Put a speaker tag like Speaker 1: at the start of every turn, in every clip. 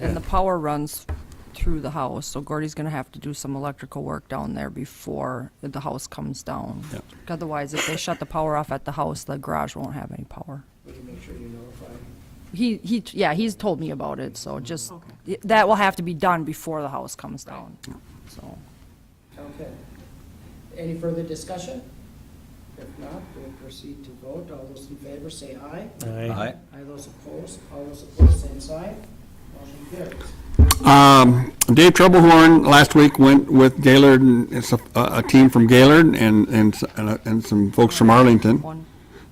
Speaker 1: And the power runs through the house, so Gordy's gonna have to do some electrical work down there before the house comes down.
Speaker 2: Yeah.
Speaker 1: Otherwise, if they shut the power off at the house, the garage won't have any power.
Speaker 3: But you make sure you notify.
Speaker 1: He, he, yeah, he's told me about it, so just, that will have to be done before the house comes down, so.
Speaker 3: Okay. Any further discussion? If not, we'll proceed to vote. All those in favor say aye.
Speaker 2: Aye.
Speaker 3: Aye, those opposed, all those opposed, same sign. Motion carries.
Speaker 2: Um, Dave Troublehorn last week went with Gaylord, and it's a, a team from Gaylord and, and, s- and a- and some folks from Arlington,
Speaker 1: One,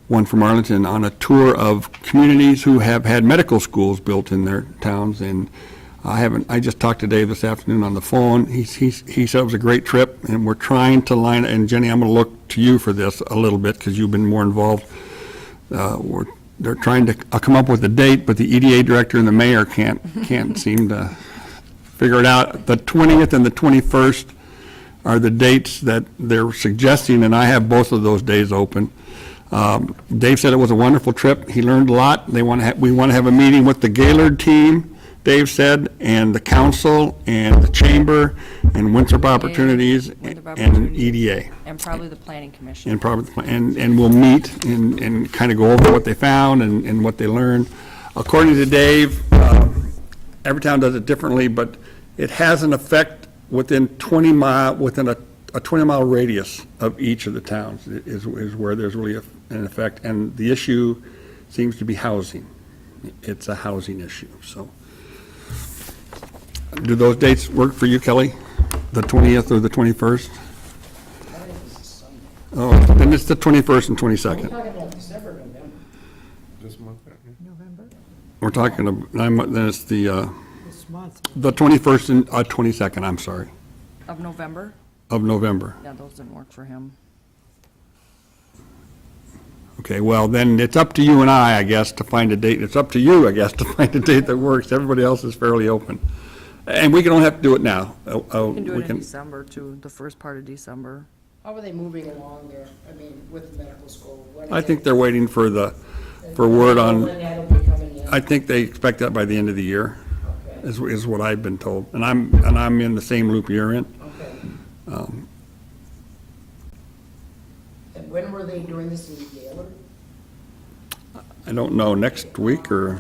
Speaker 2: one from Arlington, on a tour of communities who have had medical schools built in their towns, and I haven't, I just talked to Dave this afternoon on the phone, he's, he's, he said it was a great trip, and we're trying to line, and Jenny, I'm gonna look to you for this a little bit, because you've been more involved uh, we're, they're trying to uh, come up with a date, but the EDA director and the mayor can't, can't seem to figure it out. The 20th and the 21st are the dates that they're suggesting, and I have both of those days open. Um, Dave said it was a wonderful trip. He learned a lot. They want to, we want to have a meeting with the Gaylord team, Dave said, and the council, and the chamber, and Winthrop Opportunities,
Speaker 1: Winthrop
Speaker 2: and E
Speaker 1: Opportunities.
Speaker 2: EDA
Speaker 1: and probably the planning commission.
Speaker 2: and probably, and, and we'll meet and, and kind of go over what they found and, and what they learned. According to Dave, um, every town does it differently, but it has an effect within 20 mile, within a, a 20-mile radius of each of the towns is, is where there's really a- an effect. And the issue seems to be housing. It's a housing issue, so. Do those dates work for you, Kelly? The 20th or the 21st?
Speaker 3: I think this is Sunday.
Speaker 2: Oh, then it's the 21st and
Speaker 3: We're
Speaker 2: 22nd.
Speaker 3: talking about December, November.
Speaker 4: This month,
Speaker 5: November,
Speaker 2: We're talking, ab- I'm- then it's the, uh,
Speaker 5: this month.
Speaker 2: the 21st and, uh, 22nd, I'm sorry,
Speaker 1: Of November?
Speaker 2: of November.
Speaker 1: Yeah, those didn't work for him.
Speaker 2: Okay, well, then it's up to you and I, I guess, to find a date. It's up to you, I guess, to find a date that works. Everybody else is fairly open. And we can, don't have to do it now. Uh, uh,
Speaker 1: We can do it in December too, the first part of December.
Speaker 3: How are they moving along there? I mean, with the medical school? What are
Speaker 2: I think
Speaker 3: they-
Speaker 2: they're waiting for the, for word
Speaker 3: When
Speaker 2: on,
Speaker 3: that'll be coming in?
Speaker 2: I think they expect that by the end of the year,
Speaker 3: Okay,
Speaker 2: is, is what I've been told. And I'm, and I'm in the same loop you're in.
Speaker 3: okay.
Speaker 2: Um,
Speaker 3: And when were they doing this in Gaylord?
Speaker 2: I don't know, next week or?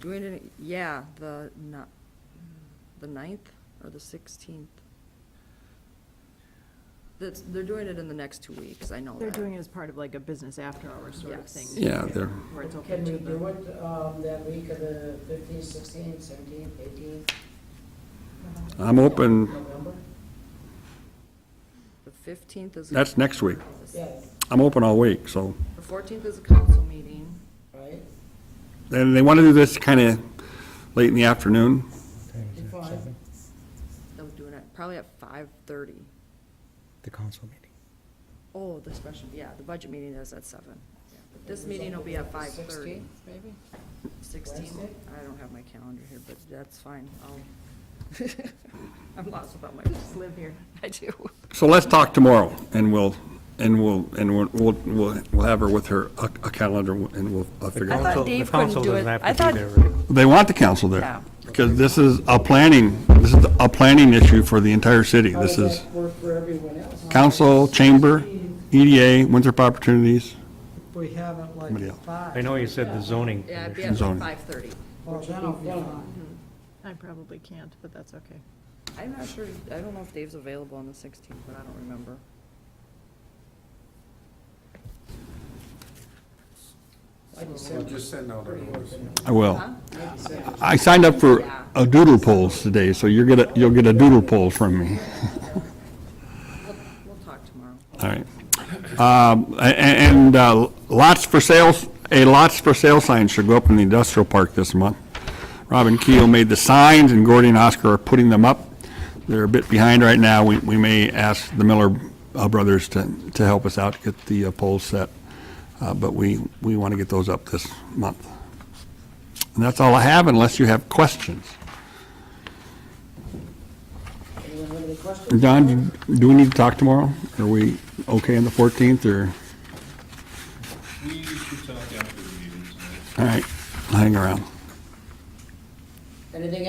Speaker 1: Doing it, yeah, the, not, the ninth or the sixteenth. That's, they're doing it in the next two weeks, I know
Speaker 5: They're
Speaker 1: that.
Speaker 5: doing it as part of like a business after-hours sort of
Speaker 1: Yes.
Speaker 5: thing.
Speaker 2: Yeah, they're-
Speaker 5: Where it's
Speaker 3: Can
Speaker 5: open
Speaker 3: we
Speaker 5: to the.
Speaker 3: do it um, that week of the 15th, 16th, 17th, 18th,
Speaker 2: I'm open,
Speaker 3: November?
Speaker 1: The fifteenth is.
Speaker 2: that's next week.
Speaker 3: Yeah,
Speaker 2: I'm open all week, so.
Speaker 1: The fourteenth is a council meeting.
Speaker 3: right?
Speaker 2: And they want to do this kind of late in the afternoon.
Speaker 3: Be fine.
Speaker 1: They're doing it probably at five thirty.
Speaker 6: the council meeting.
Speaker 1: Oh, the special, yeah, the budget meeting is at seven. Yeah, but This meeting will be at five thirty.
Speaker 3: 16th, maybe?
Speaker 1: Sixteen,
Speaker 3: Wednesday?
Speaker 1: I don't have my calendar here, but that's fine. I'll, I'm lost without my,
Speaker 5: Live here.
Speaker 1: I do.
Speaker 2: So let's talk tomorrow, and we'll, and we'll, and we'll- we'll, we'll we'll have her with her, a a calendar, and we'll I'll figure
Speaker 1: I
Speaker 2: out.
Speaker 1: thought
Speaker 6: Council-
Speaker 1: Dave
Speaker 6: the
Speaker 1: couldn't
Speaker 6: council
Speaker 1: do
Speaker 6: doesn't
Speaker 1: it.
Speaker 6: have to
Speaker 1: I
Speaker 6: be
Speaker 1: thought-
Speaker 6: there, right?
Speaker 2: They want the council there,
Speaker 1: Yeah.
Speaker 2: because this is a planning, this is a planning issue for the entire city.
Speaker 3: How does
Speaker 2: This is
Speaker 3: that work for everyone else?
Speaker 2: council, chamber, E EDA, Winthrop Opportunities,
Speaker 7: We haven't
Speaker 2: Somebody
Speaker 7: like
Speaker 2: else.
Speaker 7: five.
Speaker 6: I know you said the zoning
Speaker 1: Yeah, it'd be
Speaker 6: commission.
Speaker 1: at
Speaker 2: Zoning.
Speaker 1: five thirty.
Speaker 7: Well, that'll be fine.
Speaker 5: I probably can't, but that's okay.
Speaker 1: I'm not sure, I don't know if Dave's available on the sixteenth, but I don't remember.
Speaker 3: Like you
Speaker 4: we'll
Speaker 3: said,
Speaker 4: just send out a notice.
Speaker 2: I will.
Speaker 1: Huh?
Speaker 2: I signed up for a doodle polls today, so you're gonna, you'll get a doodle poll from me.
Speaker 1: We'll, we'll talk tomorrow.
Speaker 2: All right. Um, a- a- And uh, lots for sales, a lots for sale sign should go up in the industrial park this month. Robin Keel made the signs, and Gordy and Oscar are putting them up. They're a bit behind right now. We we may ask the Miller uh, brothers to to help us out, get the uh, poles set, Uh, but we we want to get those up this month. And that's all I have, unless you have questions.
Speaker 3: anyone have any questions?
Speaker 2: Don, do- do we need to talk tomorrow? Are we okay on the 14th, or?
Speaker 8: We should talk after the meeting tonight.
Speaker 2: All right, I'll hang around.
Speaker 3: Anything